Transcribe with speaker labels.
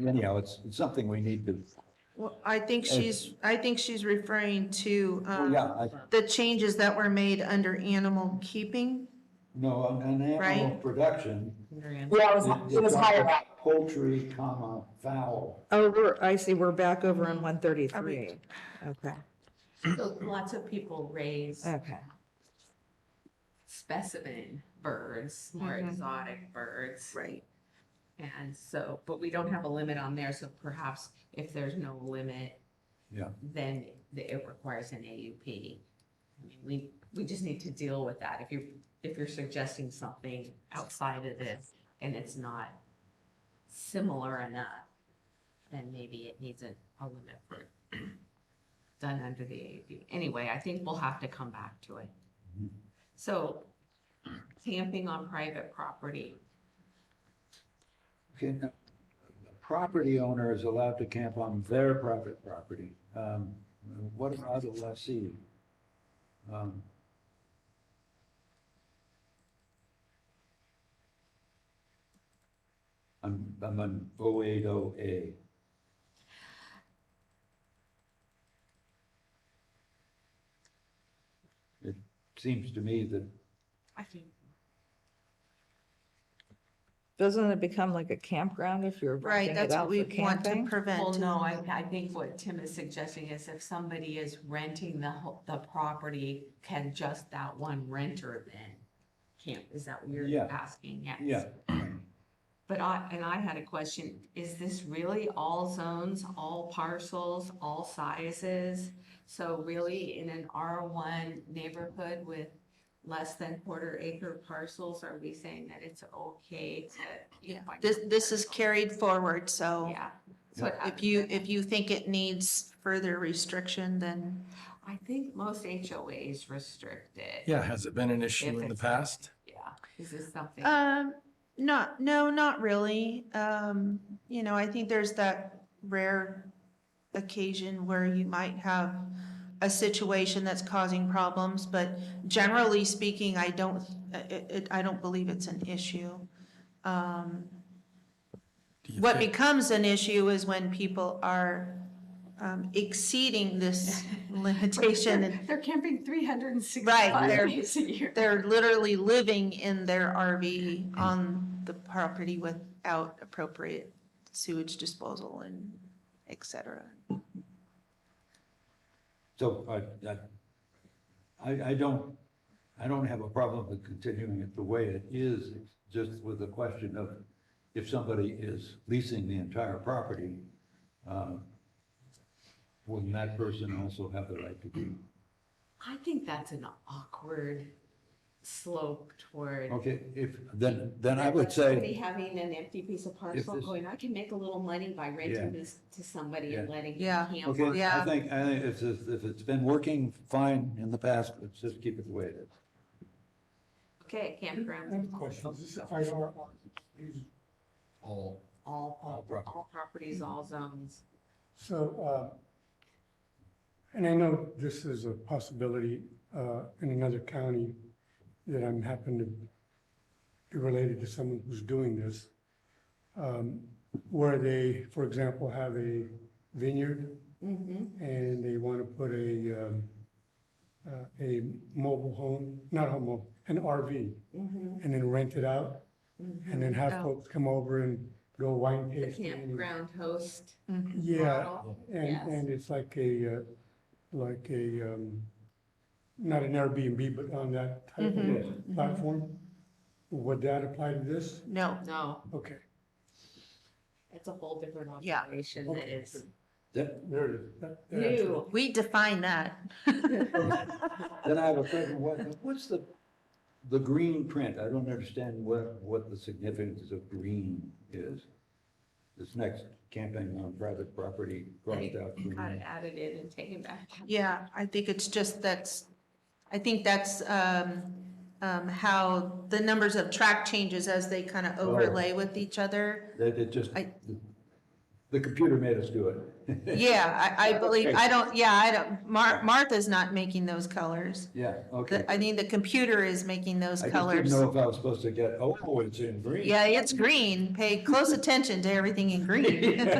Speaker 1: you know, it's, it's something we need to,
Speaker 2: Well, I think she's, I think she's referring to,
Speaker 1: well,
Speaker 2: um,
Speaker 1: Oh, yeah, I,
Speaker 2: the changes that were made under animal keeping.
Speaker 1: no, on on animal
Speaker 2: Right.
Speaker 1: production.
Speaker 3: Yeah, it was,
Speaker 1: it-
Speaker 3: it was higher up.
Speaker 1: Poultry, comma, fowl.
Speaker 3: Oh, we're, I see, we're back over on one thirty-three. Okay,
Speaker 4: So lots of people raise
Speaker 3: okay.
Speaker 4: specimen birds, more exotic birds.
Speaker 2: Right.
Speaker 4: And so, but we don't have a limit on there, so perhaps if there's no limit,
Speaker 1: Yeah.
Speaker 4: then the- it requires an AUP. I mean, we, we just need to deal with that. If you're, if you're suggesting something outside of this and it's not similar enough, then maybe it needs a, a limit for done under the AUP. Anyway, I think we'll have to come back to it. So camping on private property,
Speaker 1: Can, the property owner is allowed to camp on their private property. Um, What about the lessee? Um, I'm, I'm on 080A. It seems to me that
Speaker 4: I think
Speaker 3: Doesn't it become like a campground if you're
Speaker 2: Right,
Speaker 3: renting it
Speaker 2: that's what
Speaker 3: out
Speaker 2: we
Speaker 3: for
Speaker 2: want to
Speaker 3: camping?
Speaker 2: prevent.
Speaker 4: Well, no, I, I think what Tim is suggesting is if somebody is renting the, ho- the property, can just that one renter then camp? Is that what
Speaker 1: Yeah.
Speaker 4: you're asking? Yes.
Speaker 1: Yeah,
Speaker 4: But I, and I had a question, is this really all zones, all parcels, all sizes? So really, in an R1 neighborhood with less than quarter acre parcels, are we saying that it's okay to?
Speaker 2: Yeah, This, this is carried forward, so
Speaker 4: Yeah. So it
Speaker 2: if you, if you think it needs further restriction, then
Speaker 4: I think most HOAs restrict it.
Speaker 5: Yeah, has it been an issue
Speaker 4: If
Speaker 5: in the
Speaker 4: it's not-
Speaker 5: past?
Speaker 4: Yeah. Is this something?
Speaker 2: Um, not, no, not really. Um, you know, I think there's that rare occasion where you might have a situation that's causing problems, but generally speaking, I don't, it, it, I don't believe it's an issue. Um,
Speaker 5: Do you
Speaker 2: what
Speaker 5: think-
Speaker 2: becomes an issue is when people are, um, exceeding this limitation and
Speaker 4: They're- They're camping three hundred and
Speaker 2: Right,
Speaker 4: sixty-five
Speaker 2: they're-
Speaker 4: days a year.
Speaker 2: they're literally living in their RV on the property without appropriate sewage disposal and et cetera.
Speaker 1: So I- I, I, I don't, I don't have a problem with continuing it the way it is, it's just with the question of if somebody is leasing the entire property, um, will that person also have the right to be?
Speaker 4: I think that's an awkward slope toward.
Speaker 1: Okay, if, then, then I would say,
Speaker 4: Somebody having an empty piece of parcel
Speaker 1: this-
Speaker 4: going, I can make a little money by renting
Speaker 1: Yeah.
Speaker 4: this to somebody and
Speaker 1: Yeah.
Speaker 4: letting
Speaker 2: Yeah.
Speaker 4: them camp on.
Speaker 1: okay, I
Speaker 2: Yeah.
Speaker 1: think, I think if, it's- if it's been working fine in the past, let's just keep it the way it is.
Speaker 4: Okay,
Speaker 6: I
Speaker 4: campground,
Speaker 6: have a question. Is this IR on these?
Speaker 1: All.
Speaker 4: all,
Speaker 1: All
Speaker 4: all
Speaker 1: property.
Speaker 4: all properties, all zones.
Speaker 6: So, uh, and I know this is a possibility uh, in another county that I'm happen to be related to someone who's doing this, um, where they, for example, have a vineyard
Speaker 2: Mm-hmm,
Speaker 6: and they want to put a, um, uh, a mobile home, not a mobile, an RV,
Speaker 2: mm-hmm.
Speaker 6: and then rent it out, and then have
Speaker 2: Oh.
Speaker 6: folks come over and do a wine
Speaker 4: Mm-hmm. The
Speaker 6: tasting. and-
Speaker 4: campground host.
Speaker 6: Yeah,
Speaker 4: model. Yes.
Speaker 6: and, and it's like a, uh, like a, um, not an Airbnb, but on that type of platform. Would that apply to this?
Speaker 2: No,
Speaker 4: No,
Speaker 6: Okay,
Speaker 4: it's a whole different
Speaker 2: Yeah.
Speaker 4: operation that is
Speaker 1: Then,
Speaker 6: there it is. That- that answers
Speaker 4: new.
Speaker 2: we define that.
Speaker 1: then I have a question, what, what's the, the green print? I don't understand what, what the significance of green is. This next camping on private property, crossed out
Speaker 4: Got it
Speaker 1: green.
Speaker 4: added in and taken back.
Speaker 2: Yeah, I think it's just that's, I think that's, um, um, how the numbers of track changes as they kind of overlay with each other.
Speaker 1: That it just,
Speaker 2: I-
Speaker 1: The computer made us do it.
Speaker 2: Yeah, I, I believe, I don't, yeah, I don't, Mar- Martha's not making those colors.
Speaker 1: Yeah, okay.
Speaker 2: The- I think the computer is making those
Speaker 1: I just
Speaker 2: colors.
Speaker 1: didn't know if I was supposed to get, oh, it's in green.
Speaker 2: Yeah, it's green. Pay close attention to everything in green.